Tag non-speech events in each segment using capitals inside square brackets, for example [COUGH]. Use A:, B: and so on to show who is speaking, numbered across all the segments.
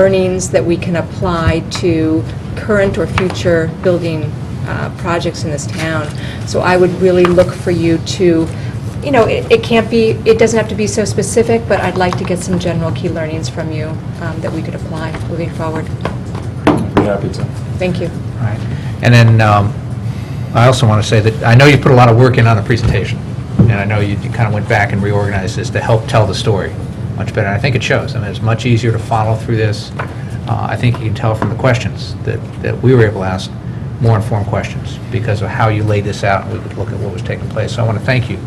A: learnings that we can apply to current or future building uh, projects in this town. So I would really look for you to, you know, it it can't be, it doesn't have to be so specific, but I'd like to get some general key learnings from you um, that we could apply moving forward.
B: Be happy to.
A: Thank you.
C: Right. And then, um, I also want to say that, I know you put a lot of work in on the presentation, and I know you kind of went back and reorganized this to help tell the story much better, and I think it shows. I mean, it's much easier to follow through this. Uh, I think you can tell from the questions that, that we were able to ask, more informed questions, because of how you laid this out, and we could look at what was taking place. So I want to thank you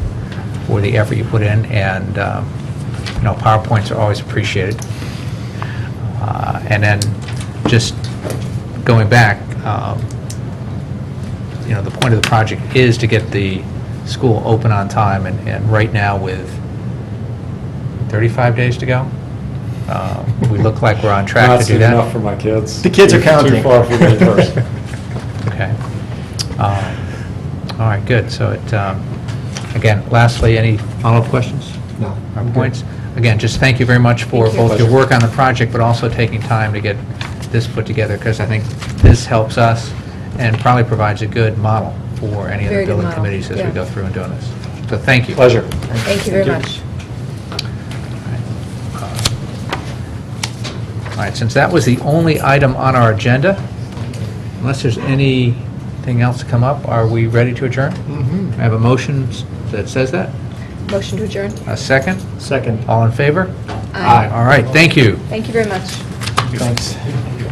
C: for the effort you put in, and, um, you know, PowerPoints are always appreciated. Uh, And then, just going back, um, you know, the point of the project is to get the school open on time, and, and right now with 35 days to go, uh, we look like we're on track to do that.
B: Not soon enough for my kids.
D: The kids are
B: Too- Too
D: counting.
B: far for
C: [LAUGHS]
B: me first.
D: [LAUGHS]
C: Okay. Um, All right, good. So it, um, again, lastly, any follow-up questions?
D: No.
C: Our points. Again, just thank you very much for
A: Thank you.
C: both your work on the project, but also taking time to get this put together, because I think this helps us and probably provides a good model for any of
A: Very
C: the
A: good
C: building
A: model,
C: committees as
A: yeah.
C: we go through and doing this. So thank you.
B: Pleasure.
A: Thank you very much.
C: All right, since that was the only item on our agenda, unless there's anything else to come up, are we ready to adjourn? I have a motion that says that.
A: Motion to adjourn?
C: A second?
D: Second.
C: All in favor?
A: Aye.
C: All right, thank you.
A: Thank you very much.
D: Thanks.